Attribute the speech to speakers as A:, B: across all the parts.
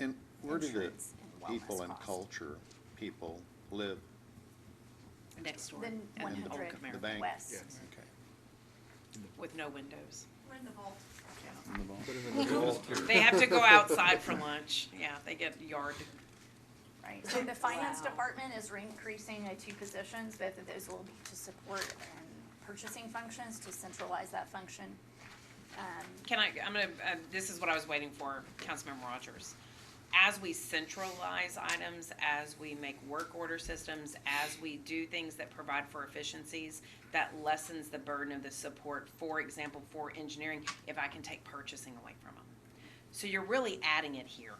A: um,
B: where do the
A: insurance and wellness
B: people and
A: cost.
B: culture people live?
C: next door.
A: Then
C: at
B: in the
A: 100
B: bank-
C: Old
B: The
C: Khmer,
B: bank?
A: West.
B: Okay.
A: Yes.
C: With no windows.
D: We're in the vault.
B: In the vault.
E: Put 'em in the vault.
C: They have to go outside for lunch. Yeah, they get yard.
A: Right, so the finance
D: Wow.
A: department is increasing the two positions, both of those will be to support and purchasing functions, to centralize that function. Um,
C: Can I, I'm gonna, uh, this is what I was waiting for, Councilmember Rogers. As we centralize items, as we make work order systems, as we do things that provide for efficiencies, that lessens the burden of the support, for example, for engineering, if I can take purchasing away from them. So you're really adding it here.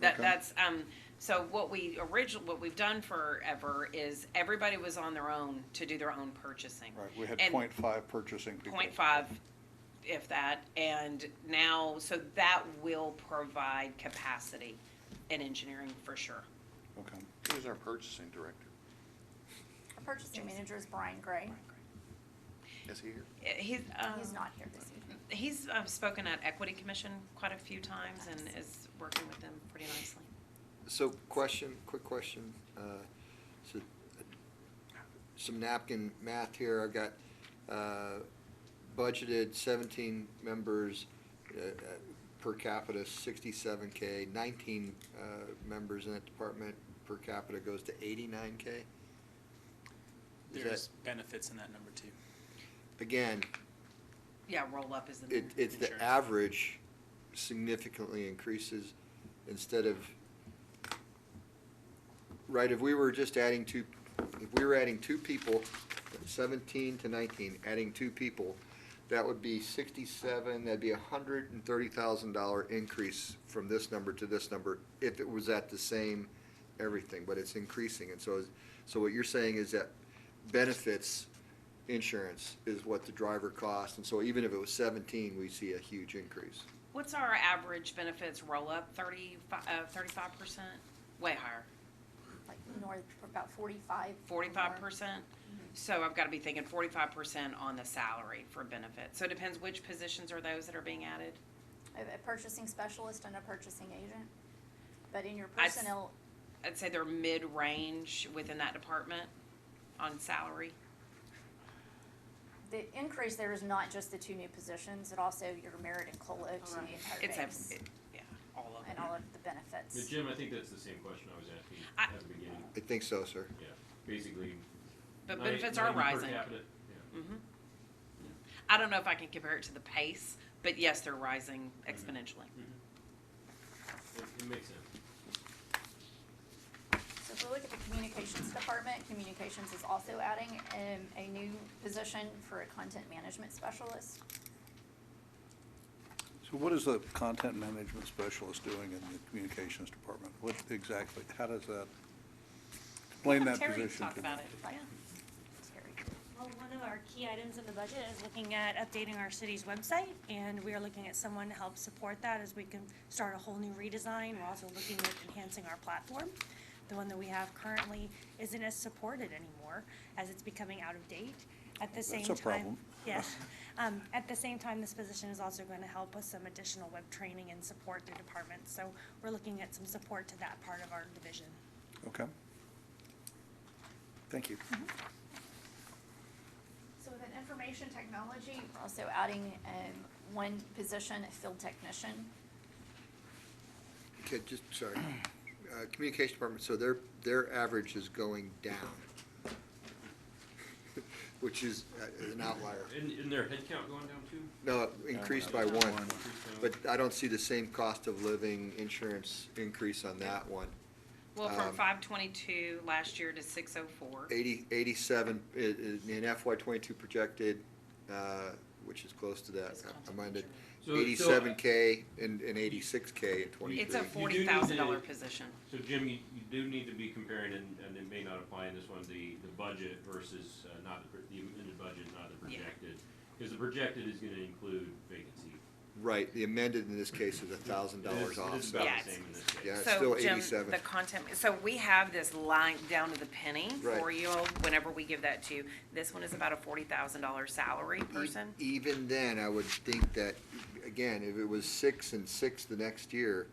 C: That,
B: Okay.
C: that's, um, so what we original, what we've done forever is everybody was on their own to do their own purchasing.
F: Right, we had
C: And-
F: point five purchasing people.
C: point five, if that, and now, so that will provide capacity in engineering for sure.
F: Okay.
B: Who's our purchasing director?
A: Our purchasing manager is Brian Gray,
B: Is he here?
C: Eh, He's, um,
A: he's not here this evening.
C: he's um, spoken at Equity Commission quite a few times and is working with them pretty nicely.
E: So question, quick question. uh, So uh, some napkin math here. I've got uh, budgeted 17 members uh, uh, per capita, 67K, 19 uh, members in that department per capita goes to 89K? Is that-
G: There's benefits in that number too.
E: Again,
C: Yeah, roll up is the
E: it,
C: name.
E: it's the
G: Insurance.
E: average significantly increases instead of, right, if we were just adding two, if we were adding two people, seventeen to nineteen, adding two people, that would be sixty-seven, that'd be a hundred and thirty thousand dollar increase from this number to this number if it was at the same everything, but it's increasing, and so, is- so what you're saying is that benefits insurance is what the driver costs, and so even if it was seventeen, we see a huge increase.
C: What's our average benefits roll up, thirty-five, uh, thirty-five percent? Way higher,
A: like north, about forty-five. or
C: forty-five
A: more.
C: percent? So I've gotta be thinking forty-five percent on the salary for benefits. So it depends which positions are those that are being added?
A: A, a purchasing specialist and a purchasing agent, but in your
C: I s-
A: personnel,
C: I'd say they're mid-range within that department on salary.
A: the increase there is not just the two new positions, it also your merit and COLA to the entire
C: Oh, It's a,
A: base.
C: it- yeah, all of
A: And
C: it.
A: all of the benefits.
H: But Jim, I think that's the same question I was asking
C: I-
H: at the beginning,
E: I think so, sir.
H: yeah, basically.
C: But
H: not e-
C: benefits
H: not
C: are
H: even per
C: rising.
H: capita, yeah.
C: Mhm. I don't know if I can compare it to the pace, but yes, they're rising exponentially.
H: It- it makes sense.
A: So if we look at the communications department, communications is also adding um, a new position for a content management specialist.
F: So what is the content management specialist doing in the communications department? What exactly, how does that, explain that
C: Terry
F: position
C: can
F: to me.
C: talk about it,
A: Like,
C: yeah.
A: Terry.
I: Well, one of our key items in the budget is looking at updating our city's website, and we are looking at someone to help support that as we can start a whole new redesign. We're also looking at enhancing our platform. The one that we have currently isn't as supported anymore, as it's becoming out of date. At the
F: That's
I: same time.
F: a problem.
I: Yes. Um, at the same time, this position is also going to help with some additional web training and support to departments. So we're looking at some support to that part of our division.
F: Okay. Thank you.
A: Mm-hmm. So within information technology, we're also adding um, one position, a field technician.
E: Okay, just, sorry. Uh, Communication Department, so their, their average is going down, which is uh, an outlier.
H: And, and their headcount going down too? uh,
E: No, increased by
F: Yeah.
E: one, but I don't see the same cost of living insurance increase on that one.
C: Well, from
E: Um,
C: five twenty-two last year to six oh four.
E: Eighty, eighty-seven, i- i- in FY twenty-two projected, uh, which is close to that,
C: It's content
E: I minded.
H: So- so-
E: Eighty-seven K and, and eighty-six K in twenty-three.
C: It's a
H: You do need
C: forty thousand dollar
H: to-
C: position.
H: So Jim, you, you do need to be comparing, and, and it may not apply in this one, the, the budget versus, uh, not the, pro- the amended budget, not the
C: Yeah.
H: projected. Cause the projected is gonna include vacancy.
E: Right, the amended in this case is a thousand dollars
H: It's-
E: off.
H: It's about
C: Yeah,
H: the
C: it's-
H: same in this case.
E: Yeah, it's
C: So
E: still
C: Jim,
E: 87.
C: the content, so we have this line down to the penny
E: Right.
C: for you whenever we give that to you. This one is about a forty thousand dollar salary
E: E-
C: person.
E: Even then, I would think that, again, if it was six and six the next year,